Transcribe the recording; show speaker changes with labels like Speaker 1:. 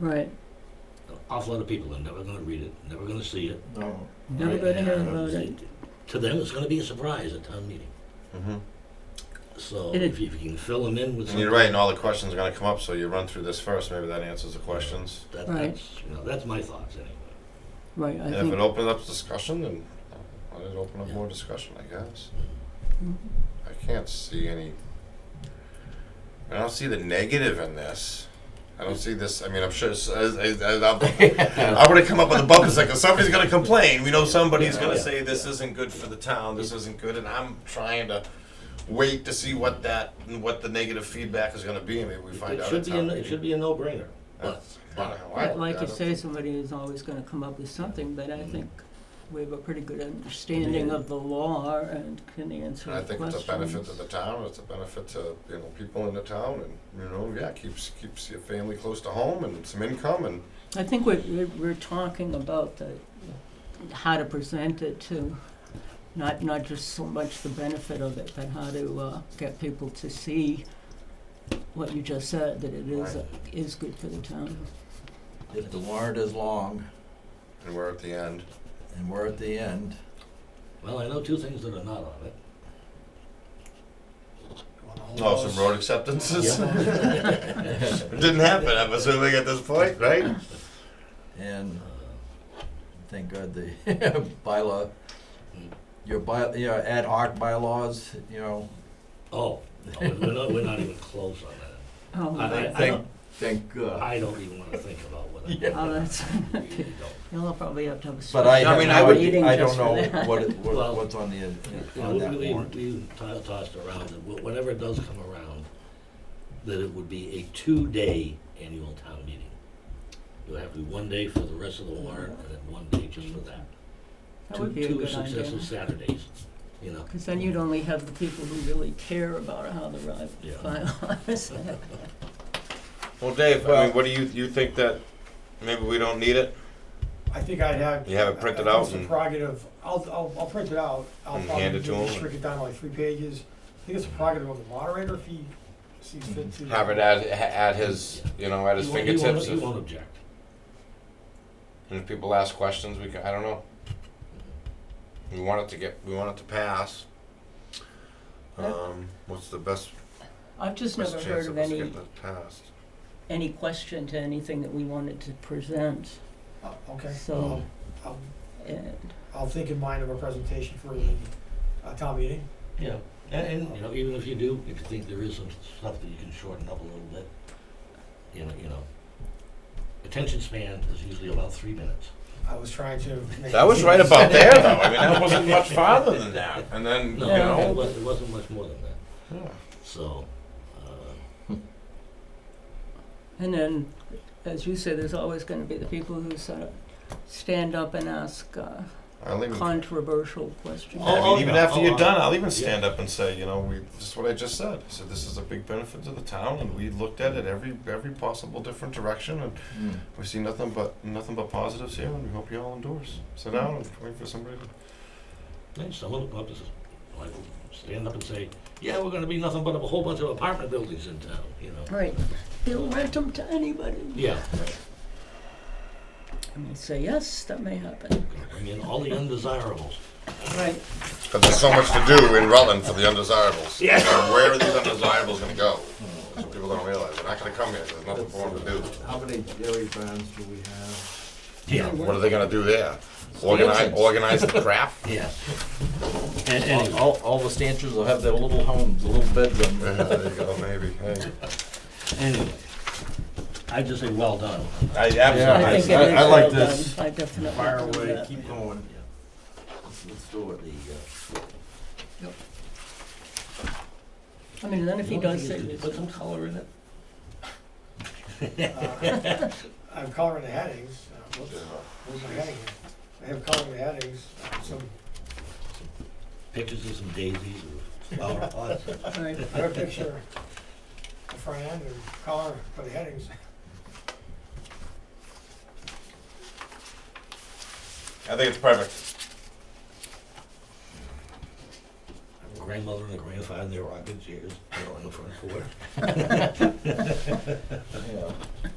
Speaker 1: Right.
Speaker 2: An awful lot of people are never going to read it, never going to see it.
Speaker 3: No.
Speaker 1: Never
Speaker 2: right?
Speaker 1: going to hear
Speaker 2: And
Speaker 1: about it.
Speaker 2: To them, it's going to be a surprise at town meeting.
Speaker 3: Mhm.
Speaker 2: So
Speaker 1: It is.
Speaker 2: if you, if you can fill them in with
Speaker 3: And you're
Speaker 2: something,
Speaker 3: right, and all the questions are going to come up, so you run through this first. Maybe that answers the questions.
Speaker 2: that,
Speaker 1: Right.
Speaker 2: that's you know that's my thoughts anyway.
Speaker 1: Right. I
Speaker 3: and if
Speaker 1: think.
Speaker 3: it opens up discussion, then let it open up more discussion, I guess.
Speaker 1: Mhm.
Speaker 3: I can't see any. I don't see the negative in this. I don't see this. I mean, I'm sure. s- As, as, as I'm, I'm going to come up with a bumper second. Somebody's going to complain. We know somebody's going to say this isn't good for the town. This isn't good, and I'm trying to wait to see what that what the negative feedback is going to be. and Maybe we
Speaker 2: It-
Speaker 3: find
Speaker 2: it
Speaker 3: out.
Speaker 2: should
Speaker 3: at
Speaker 2: be
Speaker 3: town
Speaker 2: a, it
Speaker 3: meeting.
Speaker 2: should be a no-brainer. But,
Speaker 3: I
Speaker 2: but
Speaker 3: don't know. I-
Speaker 1: But like
Speaker 3: I
Speaker 1: you
Speaker 3: don't
Speaker 1: say,
Speaker 3: think-
Speaker 1: somebody is always going to come up with something, but
Speaker 3: Mm-hmm.
Speaker 1: I think we have a pretty good understanding of the law and can answer
Speaker 3: And I
Speaker 1: the
Speaker 3: think it's a benefit to
Speaker 1: questions.
Speaker 3: the town, it's a benefit to, you know, people in the town and, you know, yeah, keeps, keeps your family close to home and some income and,
Speaker 1: I think we're, we're- we're talking about the, how to present it to, not, not just so much the benefit of it, but how to, uh, get people to see what you just said, that it is,
Speaker 3: Right.
Speaker 1: is good for the town.
Speaker 4: If the warrant is long
Speaker 3: and we're at the end.
Speaker 4: and we're at the end,
Speaker 2: well, I know two things that are not on it.
Speaker 3: Oh, some road acceptances?
Speaker 2: Yeah.
Speaker 3: It Didn't happen, I'm assuming at this point, right?
Speaker 4: and
Speaker 2: Uh,
Speaker 4: thank God the bylaw, your by, your ad hoc bylaws, you know,
Speaker 2: oh, no, we're not we're not even close on that.
Speaker 1: Oh,
Speaker 2: I, I, I,
Speaker 4: Thank-
Speaker 2: don't,
Speaker 4: thank God.
Speaker 2: I don't even want to think about what. I
Speaker 4: Yeah.
Speaker 1: oh, that's,
Speaker 2: really don't.
Speaker 1: you'll probably have to have a
Speaker 4: But
Speaker 1: special
Speaker 4: I,
Speaker 3: I
Speaker 4: have
Speaker 3: mean,
Speaker 4: no
Speaker 3: I would-
Speaker 4: idea-
Speaker 1: meeting
Speaker 4: I
Speaker 1: just
Speaker 4: don't
Speaker 1: for
Speaker 4: know
Speaker 1: that.
Speaker 4: what, it-
Speaker 2: Well,
Speaker 4: what, what's on the, uh,
Speaker 2: You know,
Speaker 4: on that
Speaker 2: we,
Speaker 4: warrant.
Speaker 2: we to- tossed around, that wh- whenever it does come around, that it would be a two-day annual town meeting. You'll have to do one day for the rest of the warrant, and then one day just for that.
Speaker 1: That
Speaker 2: Two-
Speaker 1: would be a
Speaker 2: Two
Speaker 1: good
Speaker 2: successive
Speaker 1: idea.
Speaker 2: Saturdays, you know.
Speaker 1: Because then you'd only have the people who really care about how the ride
Speaker 2: Yeah.
Speaker 1: finalized.
Speaker 3: Well, Dave, I
Speaker 5: Well-
Speaker 3: mean, what do you, you think that maybe we don't need it?
Speaker 5: I think I'd have.
Speaker 3: You have it printed
Speaker 5: I- I think
Speaker 3: out
Speaker 5: it's a
Speaker 3: and-
Speaker 5: prerogative, I'll, I'll, I'll print it out. I'll
Speaker 3: And
Speaker 5: probably
Speaker 3: hand it to him?
Speaker 5: Restrict it down to like three pages. I think it's a prerogative of the moderator if he sees fit to.
Speaker 3: Have it at, at his, you know, at his
Speaker 2: You won't- you won't-
Speaker 3: fingertips.
Speaker 2: You
Speaker 3: if-
Speaker 2: won't object.
Speaker 3: And if people ask questions, we can, I don't know. We want it to get, we want it to pass. Um, what's the best,
Speaker 1: I've just
Speaker 3: best
Speaker 1: never heard
Speaker 3: chance of
Speaker 1: of
Speaker 3: us
Speaker 1: any,
Speaker 3: getting it passed?
Speaker 1: any question to anything that we wanted to present,
Speaker 5: Oh, Okay.
Speaker 2: Um,
Speaker 1: So-
Speaker 5: I'll,
Speaker 1: and,
Speaker 5: I'll think in mind of a presentation for the, uh, town meeting.
Speaker 2: Yeah, and, and, you know, even if you do, if you think there is some stuff that you can shorten up a little bit, you know, you know. Attention span is usually about three minutes.
Speaker 5: I was trying to. make-
Speaker 3: That was right about there, though. I mean, that wasn't much farther than that. And then,
Speaker 2: No,
Speaker 3: you know.
Speaker 2: it wasn't, it wasn't much more than that,
Speaker 3: yeah.
Speaker 2: so, uh,
Speaker 1: and then, as you say, there's always gonna be the people who sort of stand up and ask uh,
Speaker 3: I'll even, I
Speaker 1: controversial questions.
Speaker 2: Oh,
Speaker 3: mean,
Speaker 2: oh,
Speaker 3: even
Speaker 2: yeah.
Speaker 3: after
Speaker 2: Oh,
Speaker 3: you're
Speaker 2: uh,
Speaker 3: done, I'll even stand up and say, you know, we, this is what I just said. I said, this is a big benefit to the town, and we looked at it every, every possible different direction, and
Speaker 4: Mm.
Speaker 3: we see nothing but, nothing but positives here, and we hope you all endorse. Sit down and wait for somebody to
Speaker 2: And someone will come up and say, like, stand up and say, yeah, we're gonna be nothing but a whole bunch of apartment buildings in town, you know?
Speaker 1: Right, they'll rent them to anybody.
Speaker 2: Yeah,
Speaker 1: And we say, yes, that may happen,
Speaker 2: bring in all the undesirables.
Speaker 1: right.
Speaker 3: But there's so much to do in Rutland for the undesirables.
Speaker 2: Yeah.
Speaker 3: And Where are these undesirables gonna go? That's what people don't realize. They're not gonna come here. There's nothing for them to do.
Speaker 4: How many dairy barns do we have?
Speaker 2: Yeah.
Speaker 3: What are they gonna do there? Organize, organize the crap?
Speaker 2: Yeah.
Speaker 4: And all, all the stanchions will have their little homes, little bedroom.
Speaker 3: Yeah, there you go, maybe. Hey.
Speaker 2: Anyway, I just say, well done.
Speaker 3: I
Speaker 4: Yeah,
Speaker 1: I
Speaker 3: absolutely.
Speaker 1: think
Speaker 4: I-
Speaker 1: it is
Speaker 4: I like
Speaker 1: well done.
Speaker 4: this.
Speaker 1: I definitely.
Speaker 4: Fire
Speaker 1: agree with
Speaker 4: away,
Speaker 1: that.
Speaker 4: keep going. Let's let's do
Speaker 2: uh,
Speaker 4: it.
Speaker 1: I mean, then if he does say,
Speaker 2: Put some color in it.
Speaker 5: Uh, I have color in the headings. Uh, Whoops, where's my heading here? I have color in the headings, uh, some,
Speaker 2: Pictures of some daisies or flower pots.
Speaker 1: right,
Speaker 5: I have a picture, the front end and color for the headings.
Speaker 3: I think it's perfect.
Speaker 2: Grandmother and grandfather in their rocking chairs, you know, in the front porch.
Speaker 4: Yeah.